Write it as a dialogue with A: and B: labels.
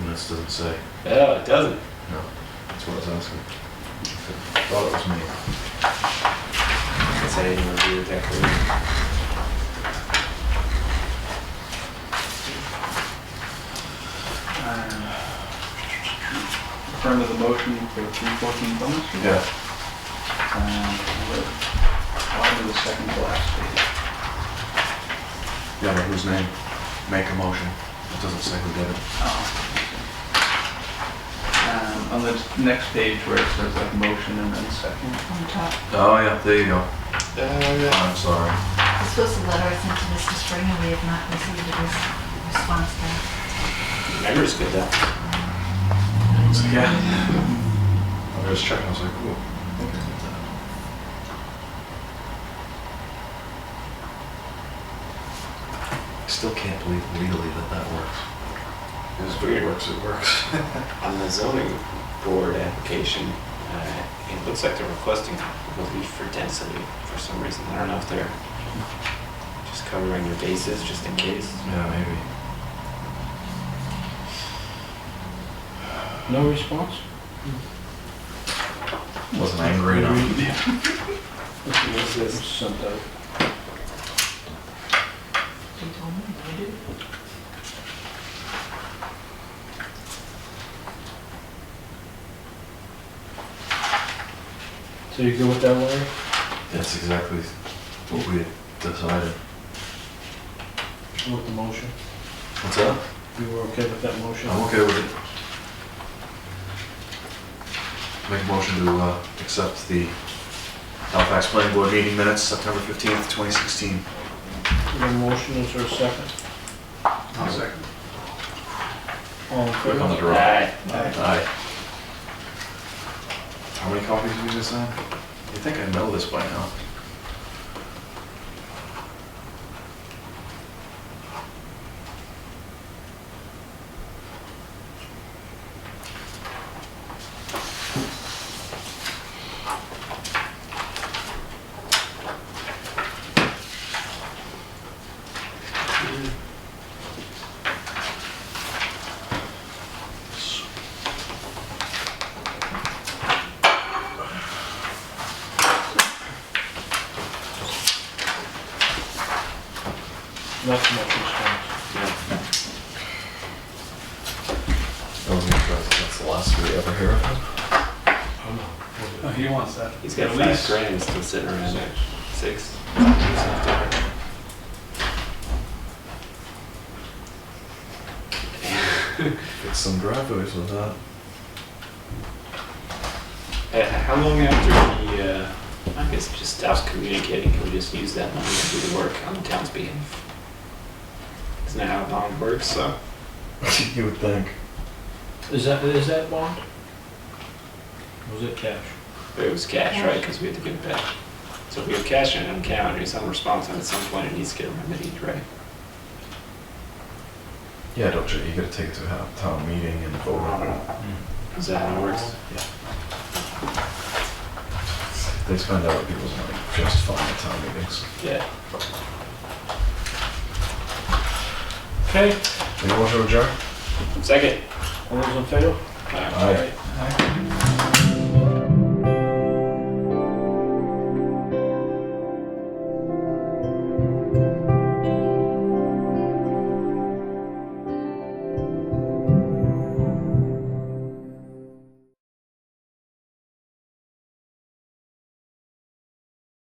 A: doesn't say.
B: Yeah, it doesn't.
A: No, that's what I was asking. I Thought it was me.
B: Guess I didn't review it that clearly.
C: Referring to Um, the motion for three fourteen Plymouth Street.
A: Yeah.
C: And we're on to the second to last
A: Yeah, but whose name? Make a motion. It doesn't say who did it.
C: page. Um, On the next page where it says like motion and then second.
D: on top.
A: Oh, yeah, there you go.
B: Uh,
A: I'm sorry.
D: This was a letter I sent to Mr. Spring, and we have not received a res- response back.
B: yeah, memory's good though.
A: Yeah. I was checking, I was like, ooh. I Still can't believe legally that that works.
B: It's weird.
A: It works, it works.
B: On the zoning board application, uh, it looks like they're requesting relief for density for some reason. I don't know if they're just covering their bases just in case.
A: Yeah, maybe.
C: No response?
A: Wasn't angry enough.
B: What's this?
D: They told me, I did.
C: So you go with that one?
A: That's exactly what we had decided.
C: With the motion?
A: What's up?
C: You were okay with that motion?
A: I'm okay with it. Make a motion to uh, accept the Halifax Planning Board meeting minutes, September 15th, 2016.
C: motion, is there a second?
A: second.
C: All in
A: Click on the draw.
B: Aye.
A: Aye. How many copies did we just sign? You think I know this by now?
C: Not so much response.
A: I was gonna try to- Oh, That's the last we ever hear of him.
C: Oh, He wants that.
B: He's got
C: At
B: five
C: least-
B: grams still sitting around. Six. Uh,
A: Get some driveways with that.
B: Uh, How long after he, uh, I guess he just stops communicating, can we just use that money to do the work on the town's behalf? Isn't that how a bond works, so?
A: You would think.
E: Is that, is that bond? Or Was it cash?
B: But it was cash, right, because we had to give it back. So if we have cash in an account, it's on response, and at some point it needs to get remedied, right?
A: Yeah, don't you, you gotta take it to a town meeting and vote on it.
B: Is that how it works?
A: They spend other people's money just fine at town meetings.
B: Yeah.
C: Okay,
A: You want to adjourn?
B: Second.
C: all those in favor?
B: All right.
A: Aye.
C: Aye.